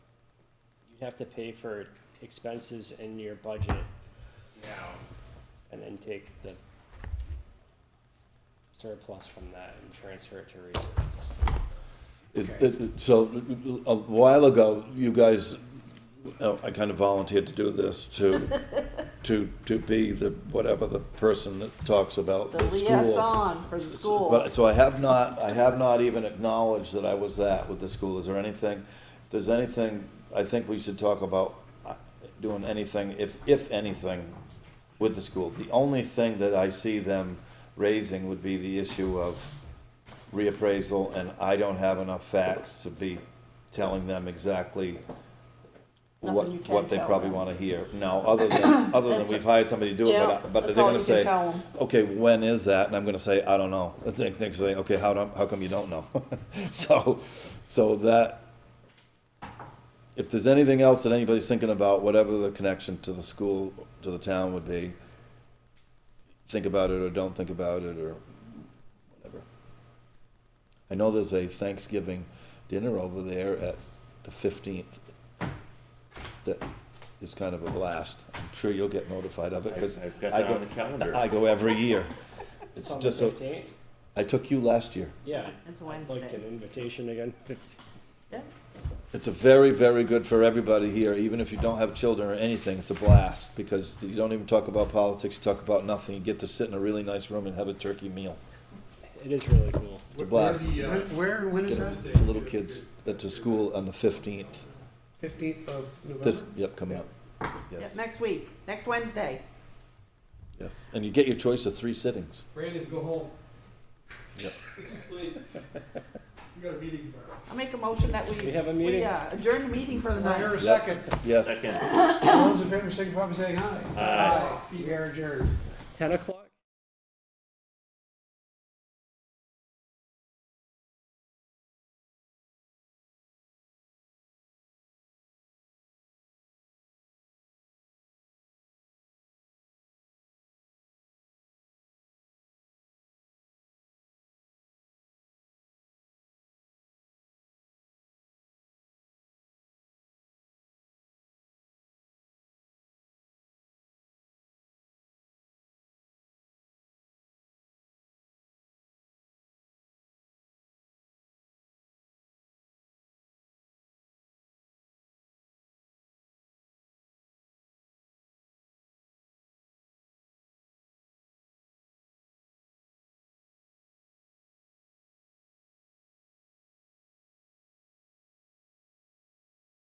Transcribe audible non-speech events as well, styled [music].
have to pay for expenses in your budget now, and then take the surplus from that and transfer it to reserves. Is- it- it- So, a while ago, you guys, oh, I kind of volunteered to do this, [laughs] to, to, to be the, whatever the person that talks about The the school. liaison for the school. But, so I have not, I have not even acknowledged that I was that with the school. Is there anything, if there's anything, I think we should talk about uh, doing anything, if, if anything, with the school. The only thing that I see them raising would be the issue of reappraisal, and I don't have enough facts to be telling them exactly what, Nothing you can what they tell probably them. wanna hear. No, other than, other than That's- we've hired somebody to do it, Yeah, but, I- but they're that's all gonna you can say, tell 'em. okay, when is that? And I'm gonna say, I don't know. And they, they say, okay, how, do- how come you don't know? [laughs] So, so that, if there's anything else that anybody's thinking about, whatever the connection to the school, to the town would be, think about it or don't think about it or whatever. I know there's a Thanksgiving dinner over there at the fifteenth that is kind of a blast. I'm sure you'll get notified of it because I've got I that go, on the calendar. I go every year. It's on the just so, 15th? I took you last year. Yeah. It's I'd Like uh, an Wednesday. invitation again. [laughs] Yeah. It's a very, very good for everybody here, even if you don't have children or anything, it's a blast, because you don't even talk about politics, you talk about nothing, you get to sit in a really nice room and have a turkey meal. It is really cool. It's a blast. When- Where, and when is that? Get the little kids that to school on the fifteenth, Fifteenth of this, November? yep, coming up, yes, Next week, next Wednesday. yes, and you get your choice of three sittings. Brandon, go home. [laughs] Yep. This is late. You got a meeting tomorrow. I make a motion that we. We have a meeting. we, uh, Adjourn the meeting for the Is there night. a second? Yes. Second. All those in favor, signify by saying aye. Aye. We are adjourned. 10 o'clock?